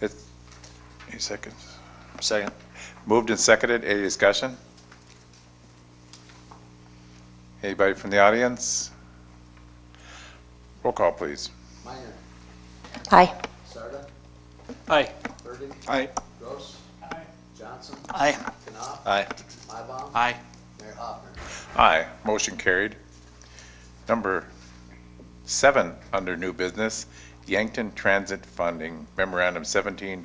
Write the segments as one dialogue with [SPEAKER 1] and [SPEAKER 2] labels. [SPEAKER 1] It, any seconds? Second. Moved and seconded, any discussion? Anybody from the audience? Roll call, please.
[SPEAKER 2] Minor,
[SPEAKER 3] Aye.
[SPEAKER 2] Sarda,
[SPEAKER 4] Aye.
[SPEAKER 2] Burdick,
[SPEAKER 1] Aye.
[SPEAKER 2] Gross. Johnson,
[SPEAKER 4] Aye.
[SPEAKER 2] Knopf,
[SPEAKER 1] Aye.
[SPEAKER 2] Mybom,
[SPEAKER 4] Aye.
[SPEAKER 2] Mayor Hoffner.
[SPEAKER 1] Aye, motion carried. Number seven, under new business, Yankton Transit Funding Memorandum seventeen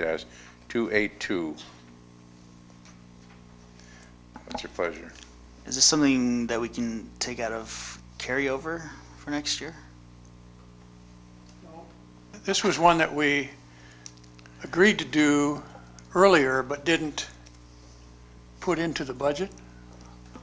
[SPEAKER 1] two eight two. What's your pleasure?
[SPEAKER 4] Is this something that we can take out of carryover for next year?
[SPEAKER 5] This was one that we agreed to do earlier, but didn't put into the budget.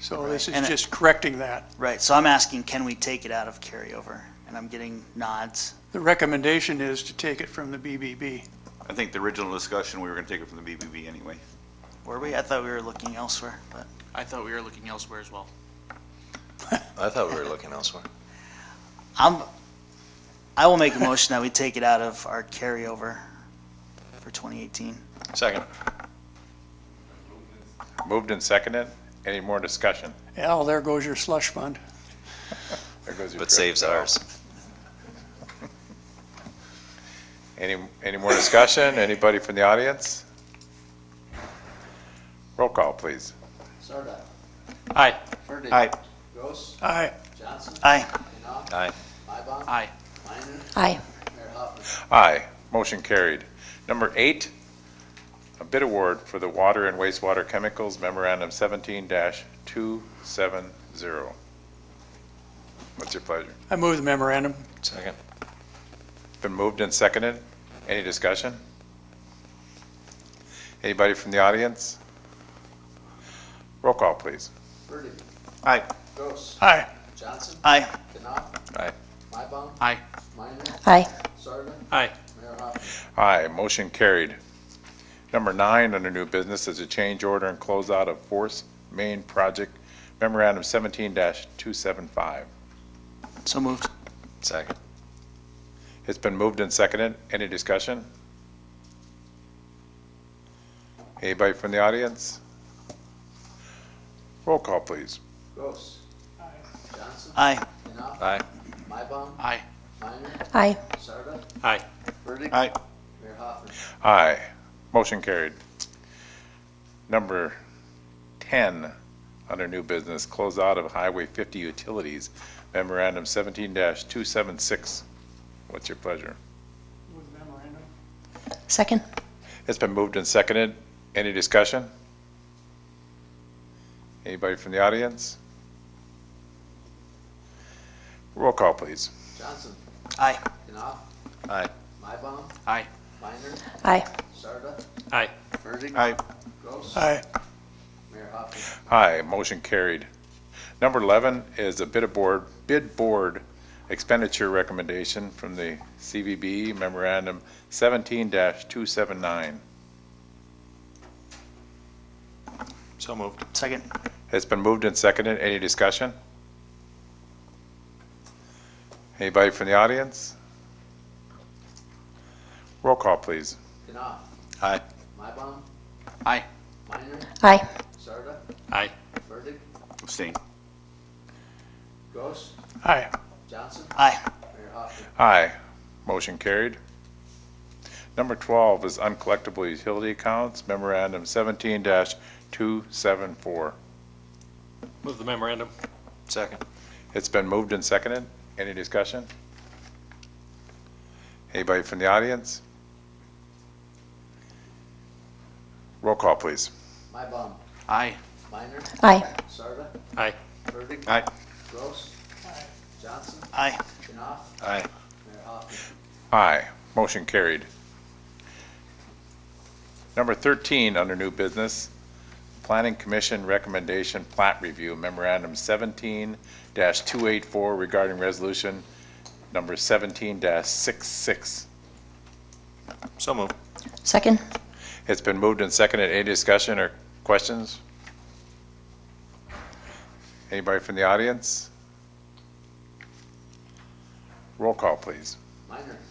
[SPEAKER 5] So this
[SPEAKER 4] And
[SPEAKER 5] is
[SPEAKER 4] it-
[SPEAKER 5] just correcting that.
[SPEAKER 4] Right, so I'm asking, can we take it out of carryover? And I'm getting nods.
[SPEAKER 5] The recommendation is to take it from the BBB.
[SPEAKER 6] I think the original discussion, we were going to take it from the BBB anyway.
[SPEAKER 4] Were we? I thought we were looking elsewhere, but,
[SPEAKER 7] I thought we were looking elsewhere as well.
[SPEAKER 8] I thought we were looking elsewhere.
[SPEAKER 4] I'm, I will make a motion that we take it out of our carryover for 2018.
[SPEAKER 8] Second.
[SPEAKER 1] Moved and seconded, any more discussion?
[SPEAKER 5] Al, there goes your slush fund.
[SPEAKER 1] There goes your
[SPEAKER 8] But
[SPEAKER 1] credit
[SPEAKER 8] saves
[SPEAKER 1] card.
[SPEAKER 8] ours.
[SPEAKER 1] Any, any more discussion? Anybody from the audience? Roll call, please.
[SPEAKER 2] Sarda,
[SPEAKER 7] Aye.
[SPEAKER 2] Burdick.
[SPEAKER 1] Aye.
[SPEAKER 2] Gross,
[SPEAKER 5] Aye.
[SPEAKER 2] Johnson,
[SPEAKER 4] Aye.
[SPEAKER 2] Knopf,
[SPEAKER 8] Aye.
[SPEAKER 2] Mybom,
[SPEAKER 7] Aye.
[SPEAKER 2] Minor,
[SPEAKER 3] Aye.
[SPEAKER 2] Mayor Hoffner.
[SPEAKER 1] Aye, motion carried. Number eight, a bid award for the water and wastewater chemicals memorandum seventeen two seven zero. What's your pleasure?
[SPEAKER 5] I move the memorandum.
[SPEAKER 8] Second.
[SPEAKER 1] Been moved and seconded. Any discussion? Anybody from the audience? Roll call, please.
[SPEAKER 2] Burdick.
[SPEAKER 1] Aye.
[SPEAKER 2] Gross,
[SPEAKER 5] Aye.
[SPEAKER 2] Johnson,
[SPEAKER 4] Aye.
[SPEAKER 2] Knopf.
[SPEAKER 8] Aye.
[SPEAKER 2] Mybom.
[SPEAKER 7] Aye.
[SPEAKER 2] Minor,
[SPEAKER 3] Aye.
[SPEAKER 2] Sarda,
[SPEAKER 7] Aye.
[SPEAKER 2] Mayor Hoffner.
[SPEAKER 1] Aye, motion carried. Number nine under new business is a change order and closeout of Force Main Project Memorandum seventeen two seven five.
[SPEAKER 4] So moved.
[SPEAKER 8] Second.
[SPEAKER 1] It's been moved and seconded. Any discussion? Anybody from the audience? Roll call, please.
[SPEAKER 2] Gross. Johnson,
[SPEAKER 4] Aye.
[SPEAKER 2] Knopf.
[SPEAKER 8] Aye.
[SPEAKER 2] Mybom,
[SPEAKER 7] Aye.
[SPEAKER 2] Minor,
[SPEAKER 3] Aye.
[SPEAKER 2] Sarda.
[SPEAKER 7] Aye.
[SPEAKER 2] Burdick.
[SPEAKER 1] Aye.
[SPEAKER 2] Mayor Hoffner.
[SPEAKER 1] Aye. Motion carried. Number 10, under new business, close out of Highway 50 Utilities Memorandum 17-276. What's your pleasure?
[SPEAKER 3] Second.
[SPEAKER 1] It's been moved and seconded. Any discussion? Anybody from the audience? Roll call, please.
[SPEAKER 2] Johnson,
[SPEAKER 4] Aye.
[SPEAKER 2] Knopf.
[SPEAKER 8] Aye.
[SPEAKER 2] Mybom.
[SPEAKER 7] Aye.
[SPEAKER 2] Minor,
[SPEAKER 3] Aye.
[SPEAKER 2] Sarda.
[SPEAKER 7] Aye.
[SPEAKER 2] Burdick.
[SPEAKER 1] Aye.
[SPEAKER 2] Gross.
[SPEAKER 5] Aye.
[SPEAKER 2] Mayor Hoffman.
[SPEAKER 1] Aye, motion carried. Number 11 is a bid aboard, bid board expenditure recommendation from the CVB memorandum 17-279.
[SPEAKER 8] So moved.
[SPEAKER 4] Second.
[SPEAKER 1] It's been moved and seconded. Any discussion? Anybody from the audience? Roll call, please.
[SPEAKER 2] Knopf.
[SPEAKER 8] Aye.
[SPEAKER 2] Mybom.
[SPEAKER 7] Aye.
[SPEAKER 2] Minor,
[SPEAKER 3] Aye.
[SPEAKER 2] Sarda.
[SPEAKER 7] Aye.
[SPEAKER 2] Burdick.
[SPEAKER 6] Abstain.
[SPEAKER 2] Gross.
[SPEAKER 5] Aye.
[SPEAKER 2] Johnson.
[SPEAKER 4] Aye.
[SPEAKER 2] Mayor Hoffman.
[SPEAKER 1] Aye. Motion carried. Number 12 is uncollectible utility accounts, memorandum 17-274.
[SPEAKER 7] Move the memorandum.
[SPEAKER 8] Second.
[SPEAKER 1] It's been moved and seconded. Any discussion? Anybody from the audience? Roll call, please.
[SPEAKER 2] Mybom.
[SPEAKER 7] Aye.
[SPEAKER 2] Minor,
[SPEAKER 3] Aye.
[SPEAKER 2] Sarda.
[SPEAKER 7] Aye.
[SPEAKER 2] Burdick.
[SPEAKER 1] Aye.
[SPEAKER 2] Gross. Johnson.
[SPEAKER 4] Aye.
[SPEAKER 2] Knopf.
[SPEAKER 8] Aye.
[SPEAKER 2] Mayor Hoffman.
[SPEAKER 1] Aye. Motion carried. Number 13, under new business, Planning Commission Recommendation Plat Review Memorandum 17-284 regarding resolution number 17-66.
[SPEAKER 8] So moved.
[SPEAKER 3] Second.
[SPEAKER 1] It's been moved and seconded. Any discussion or questions? Anybody from the audience? Roll call, please.
[SPEAKER 2] Minor,